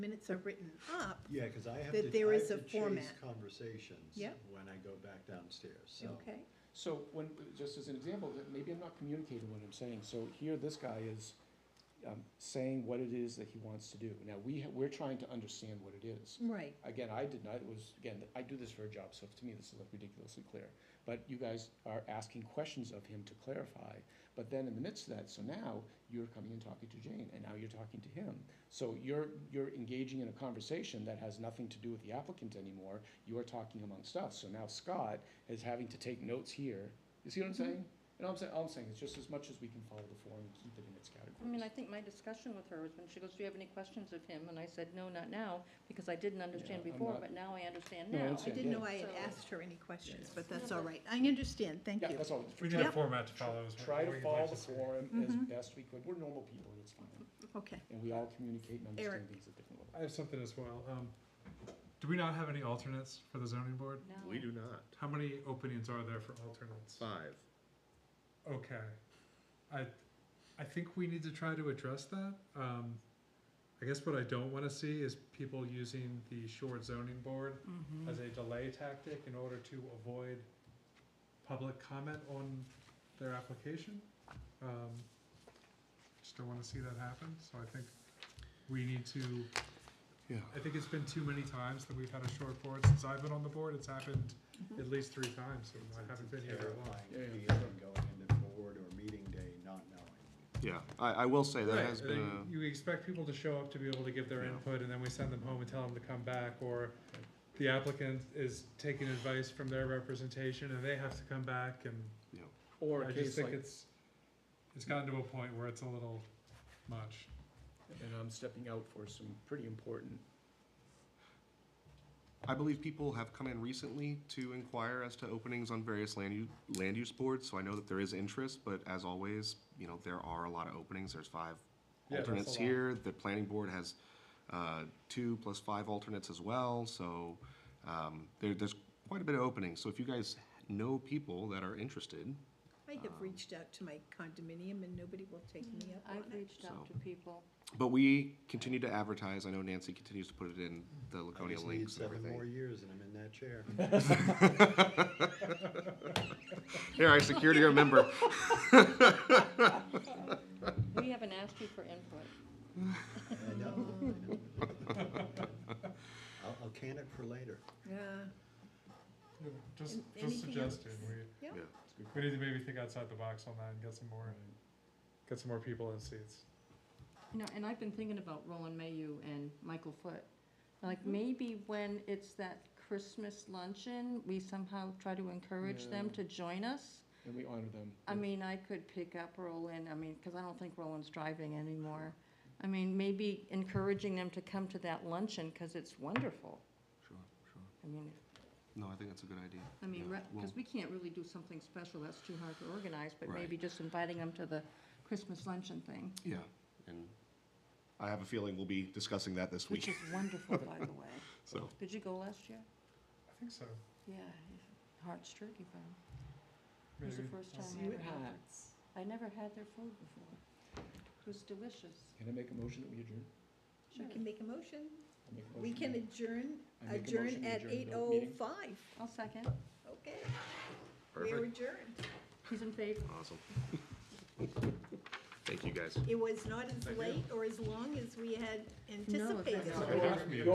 minutes are written up, Yeah, because I have That to, there I is have a to chase format. conversations Yep. when I go back downstairs, so. okay? So when, just as an example, that maybe I'm not communicating what I'm saying. So here, this guy is um, saying what it is that he wants to do. Now, we, ha- we're trying to understand what it is. Right, Again, I did not, it was, again, I do this for a job, so to me, this is like ridiculously clear. But you guys are asking questions of him to clarify. But then in the midst of that, so now you're coming and talking to Jane, and now you're talking to him. So you're, you're engaging in a conversation that has nothing to do with the applicant anymore. You are talking amongst us. So now Scott is having to take notes here. You see what I'm Mm-hmm. saying? And all I'm saying, all I'm saying is just as much as we can follow the form and keep it in its I mean, I categories. think my discussion with her was when she goes, do you have any questions of him? And I said, no, not now, because I didn't understand Yeah, I'm before, not- but now I understand No, I now. I understand. didn't know I had So- asked her any questions, but that's Yeah, all right, but- I understand, thank Yeah, you. that's all. We need Yep. a format to follow. is what Try to we'd follow like the see. forum Mm-hmm. as best we could. We're normal people, and it's fine. Okay, And we all communicate and understand Eric. things at different levels. I have something as well. Um, do we not have any alternates for the zoning board? No. We do not. How many openings are there for alternates? Five. Okay. I, I think we need to try to address that. Um, I guess what I don't want to see is people using the short zoning board Mm-hmm. as a delay tactic in order to avoid public comment on their application. Um, just don't want to see that happen, so I think we need to Yeah. I think it's been too many times that we've had a short board since I've been on the board. It's happened at least three times, and I haven't been here very long. Terrifying feeling going into board or meeting day not knowing. Yeah, I, I will say that Right, has and been You expect people to show up to be able to give their Yeah. input, and then we send them home and tell them to come back, or the applicant is taking advice from their representation, and they have to come back, and a, you know, Or I a just case think like, it's, it's gotten to a point where it's a little much. and I'm stepping out for some pretty important, I believe people have come in recently to inquire as to openings on various land use, land use boards, so I know that there is interest, but as always, you know, there are a lot of openings, there's five Yeah, that's a lot. alternates here, the planning board has, uh, two plus five alternates as well, so, um, there, there's quite a bit of openings, so if you guys know people that are interested, I have reached out to my condominium and nobody will take me up I've on it. reached out So- to people. but we continue to advertise, I know Nancy continues to put it in the I Laconia just need links and seven more everything. years and I'm in that chair. Here, I secured your member. We haven't asked you for input. I know, I know. uh, I'll, I'll can it for later. Yeah, Just, And just anything else? suggesting, we, yeah, Yeah. we need to maybe think outside the box on that and get some more, get some more people in seats. You know, and I've been thinking about Roland Mayu and Michael Foot. Like, maybe when it's that Christmas luncheon, we somehow try to encourage them Yeah. to join us. and we honor them. I mean, I could pick up Roland, I mean, because I don't think Roland's driving anymore. I mean, maybe encouraging them to come to that luncheon, because it's wonderful. Sure, sure. I mean, No, I think that's a good idea. I mean, Yeah, we'll- because we can't really do something special, that's too hard to organize, but Right. maybe just inviting them to the Christmas luncheon thing, Yeah, and I have a feeling we'll be discussing that this which week, is wonderful, by the way. so. Did you go last year? I think so. Yeah, Hart's Turkey Farm. It was the Maybe. first time I You ever had had. it. I never had their food before. It was delicious. Can I make a motion that we adjourn? we can make a motion, I'll make a we motion can that- adjourn, I make a motion adjourn to at adjourn eight the oh meeting. five, I'll second. okay? We're adjourned, He's in favor. Awesome. Thank you, guys. it was not as late or as long as we had anticipated. No, it was not.